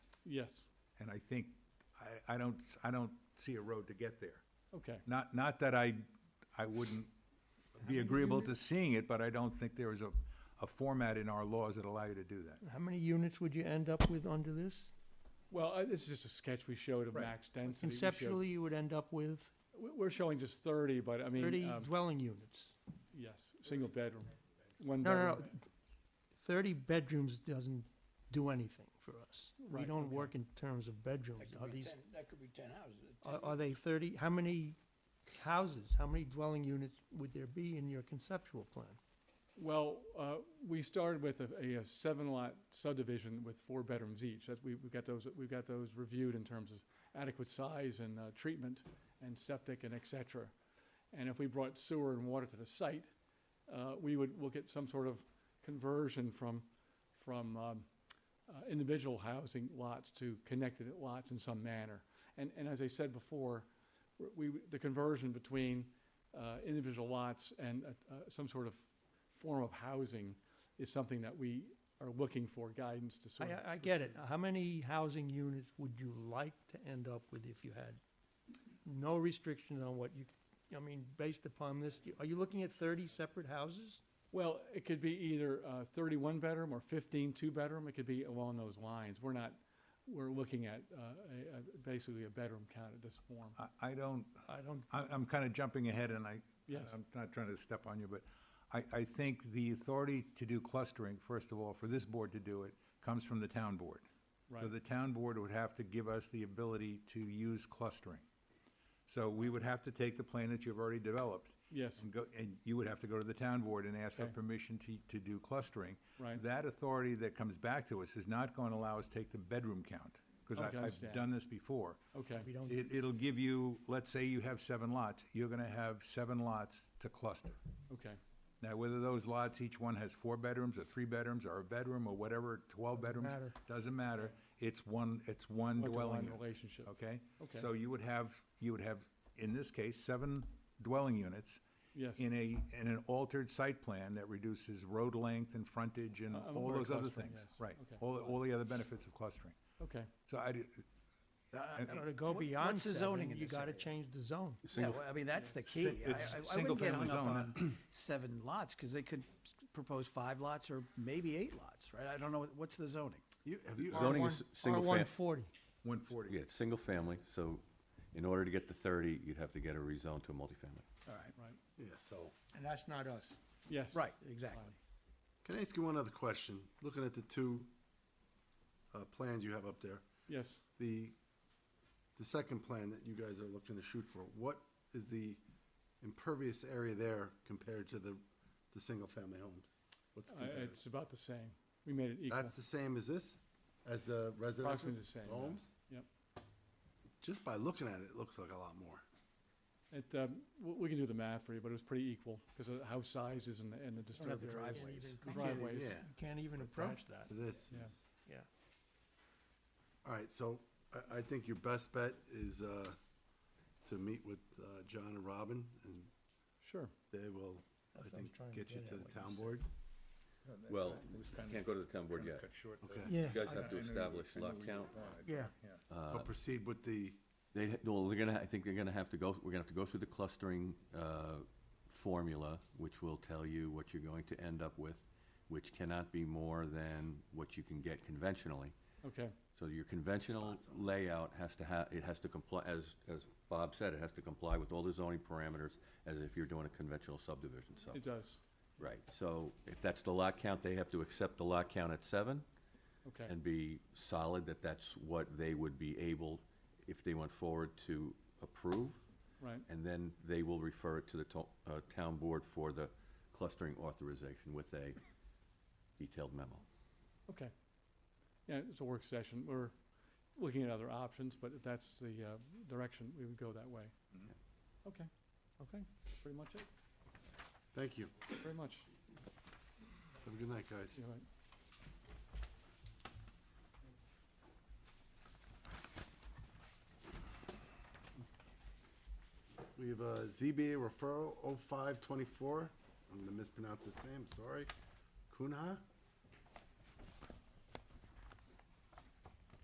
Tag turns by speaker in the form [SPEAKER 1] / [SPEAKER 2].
[SPEAKER 1] Yes,
[SPEAKER 2] And I think, I, I don't, I don't see a road to get there.
[SPEAKER 1] okay.
[SPEAKER 2] Not, not that I, I wouldn't be agreeable to seeing it, but I don't think there is a, a format in our laws that allow you to do that.
[SPEAKER 3] How many units would you end up with under this?
[SPEAKER 1] Well, uh, this is just a sketch we showed of max density. We showed-
[SPEAKER 3] Conceptually, you would end up with
[SPEAKER 1] we- We're showing just thirty, but I mean,
[SPEAKER 3] thirty
[SPEAKER 1] um,
[SPEAKER 3] dwelling units.
[SPEAKER 1] yes, single bedroom, one
[SPEAKER 3] No, no,
[SPEAKER 1] bedroom.
[SPEAKER 3] Thirty bedrooms doesn't do anything for us. We
[SPEAKER 1] Right,
[SPEAKER 3] don't
[SPEAKER 1] okay.
[SPEAKER 3] work in terms of bedrooms. Are
[SPEAKER 4] be
[SPEAKER 3] these,
[SPEAKER 4] 10 That could be ten houses.
[SPEAKER 3] are, are they thirty, how many houses, how many dwelling units would there be in your conceptual plan?
[SPEAKER 1] Well, uh, we started with a, a seven lot subdivision with four bedrooms each. That's, we, we've got those, we've got those reviewed in terms of adequate size and, uh, treatment and septic and et cetera. And if we brought sewer and water to the site, uh, we would look at some sort of conversion from, from, um, uh, individual housing lots to connected lots in some manner. And, and as I said before, w- we, the conversion between, uh, individual lots and, uh, uh, some sort of form of housing is something that we are looking for guidance to sort of.
[SPEAKER 3] I, I get it.
[SPEAKER 1] pursue.
[SPEAKER 3] How many housing units would you like to end up with if you had no restriction on what you, I mean, based upon this, you- are you looking at thirty separate houses?
[SPEAKER 1] Well, it could be either uh, 31 bedroom or 15 two bedroom. It could be along those lines. We're not, we're looking at uh, a, a, basically a bedroom count at this form.
[SPEAKER 2] I, I don't,
[SPEAKER 3] I don't,
[SPEAKER 2] I, I'm kind of jumping ahead and I,
[SPEAKER 1] Yes.
[SPEAKER 2] I'm not trying to step on you, but I, I think the authority to do clustering, first of all, for this board to do it, comes from the town board. So
[SPEAKER 1] Right.
[SPEAKER 2] the town board would have to give us the ability to use clustering. So we would have to take the plan that you've already developed
[SPEAKER 1] Yes.
[SPEAKER 2] and go, and you would have to go to the town board and ask for
[SPEAKER 1] Okay.
[SPEAKER 2] permission to, to do clustering.
[SPEAKER 1] Right.
[SPEAKER 2] That authority that comes back to us is not going to allow us to take the bedroom count, because
[SPEAKER 1] Okay, I
[SPEAKER 2] I, I've
[SPEAKER 1] understand.
[SPEAKER 2] done this before.
[SPEAKER 1] Okay.
[SPEAKER 3] we don't,
[SPEAKER 2] It, it'll give you, let's say you have seven lots, you're gonna have seven lots to cluster.
[SPEAKER 1] Okay.
[SPEAKER 2] Now, whether those lots, each one has four bedrooms, or three bedrooms, or a bedroom, or whatever, twelve bedrooms,
[SPEAKER 3] matter.
[SPEAKER 2] doesn't matter, it's one, it's one dwelling
[SPEAKER 1] One-to-one
[SPEAKER 2] unit
[SPEAKER 1] relationship.
[SPEAKER 2] okay?
[SPEAKER 1] Okay.
[SPEAKER 2] So you would have, you would have, in this case, seven dwelling units
[SPEAKER 1] Yes.
[SPEAKER 2] in a, in an altered site plan that reduces road length and frontage and
[SPEAKER 1] I- Uh, I'm
[SPEAKER 2] all
[SPEAKER 1] aware of
[SPEAKER 2] those other
[SPEAKER 1] clustering,
[SPEAKER 2] things.
[SPEAKER 1] yes.
[SPEAKER 2] Right,
[SPEAKER 1] Okay.
[SPEAKER 2] all, all the other benefits of clustering.
[SPEAKER 1] Okay.
[SPEAKER 2] So I, do-
[SPEAKER 3] so to go
[SPEAKER 4] What-
[SPEAKER 3] beyond
[SPEAKER 4] what's the zoning
[SPEAKER 3] seven,
[SPEAKER 4] in
[SPEAKER 3] you
[SPEAKER 4] this
[SPEAKER 3] gotta
[SPEAKER 4] area?
[SPEAKER 3] change the zone.
[SPEAKER 4] Yeah, well, I mean, that's the key. I-
[SPEAKER 2] it's
[SPEAKER 4] I- I
[SPEAKER 2] single
[SPEAKER 4] wouldn't get
[SPEAKER 2] family
[SPEAKER 4] hung up
[SPEAKER 2] zone.
[SPEAKER 4] on seven lots, because they could s- propose five lots or maybe eight lots, right? I don't know, what- what's the zoning? You, have you?
[SPEAKER 5] Zoning
[SPEAKER 3] R1
[SPEAKER 5] is single
[SPEAKER 3] R1
[SPEAKER 5] fam,
[SPEAKER 3] 40.
[SPEAKER 2] one forty.
[SPEAKER 5] yeah, it's single family, so in order to get to thirty, you'd have to get a rezone to a multifamily.
[SPEAKER 4] All right,
[SPEAKER 1] Right.
[SPEAKER 6] Yeah, so,
[SPEAKER 3] and that's not us.
[SPEAKER 1] Yes.
[SPEAKER 4] right, exactly.
[SPEAKER 6] can I ask you one other question? Looking at the two uh, plans you have up there,
[SPEAKER 1] Yes.
[SPEAKER 6] the, the second plan that you guys are looking to shoot for, what is the impervious area there compared to the, the single-family homes? What's the
[SPEAKER 1] I-
[SPEAKER 6] comparison?
[SPEAKER 1] It's about the same. We made it equal.
[SPEAKER 6] That's the same as this, as the residential
[SPEAKER 1] Approximately the same. yeah.
[SPEAKER 6] homes?
[SPEAKER 1] Yep.
[SPEAKER 6] Just by looking at it, it looks like a lot more.
[SPEAKER 1] It, um, w- we can do the math for you, but it was pretty equal because of the house sizes and the, and the
[SPEAKER 4] Don't have
[SPEAKER 1] disturbed
[SPEAKER 4] the
[SPEAKER 1] areas.
[SPEAKER 4] driveways.
[SPEAKER 1] The driveways.
[SPEAKER 6] Yeah.
[SPEAKER 3] You can't even approach that,
[SPEAKER 6] to This
[SPEAKER 1] Yeah.
[SPEAKER 6] is.
[SPEAKER 3] yeah.
[SPEAKER 6] All right, so I, I think your best bet is, uh, to meet with, uh, John and Robin, and
[SPEAKER 1] Sure.
[SPEAKER 6] they will,
[SPEAKER 3] what
[SPEAKER 6] I
[SPEAKER 3] I was
[SPEAKER 6] think,
[SPEAKER 3] trying to
[SPEAKER 6] get you
[SPEAKER 3] get
[SPEAKER 6] to
[SPEAKER 3] at,
[SPEAKER 6] the
[SPEAKER 3] what you
[SPEAKER 6] town
[SPEAKER 3] said.
[SPEAKER 6] board.
[SPEAKER 2] Oh,
[SPEAKER 5] Well, can't go to the town board yet.
[SPEAKER 2] Okay.
[SPEAKER 6] Okay.
[SPEAKER 3] Yeah,
[SPEAKER 5] You guys have to establish lot count.
[SPEAKER 3] yeah.
[SPEAKER 6] So proceed with the,
[SPEAKER 5] They, ha- well, they're gonna, I think they're gonna have to go, we're gonna have to go through the clustering, uh, formula, which will tell you what you're going to end up with, which cannot be more than what you can get conventionally.
[SPEAKER 1] Okay.
[SPEAKER 5] So your conventional layout has to have, it has to comply, as, as Bob said, it has to comply with all the zoning parameters as if you're doing a conventional subdivision, so.
[SPEAKER 1] It does.
[SPEAKER 5] Right, so if that's the lot count, they have to accept the lot count at seven
[SPEAKER 1] Okay.
[SPEAKER 5] and be solid that that's what they would be able, if they went forward, to approve.
[SPEAKER 1] Right.
[SPEAKER 5] And then they will refer it to the to, uh, town board for the clustering authorization with a detailed memo.
[SPEAKER 1] Okay. Yeah, it's a work session. We're looking at other options, but if that's the uh, direction, we would go that way. Okay, okay, pretty much it,
[SPEAKER 6] thank you.
[SPEAKER 1] very much.
[SPEAKER 6] Have a good night, guys.
[SPEAKER 1] You're right.
[SPEAKER 6] We have uh, a oh ZBA referral 0524, I'm gonna mispronounce his name, sorry. Kunha?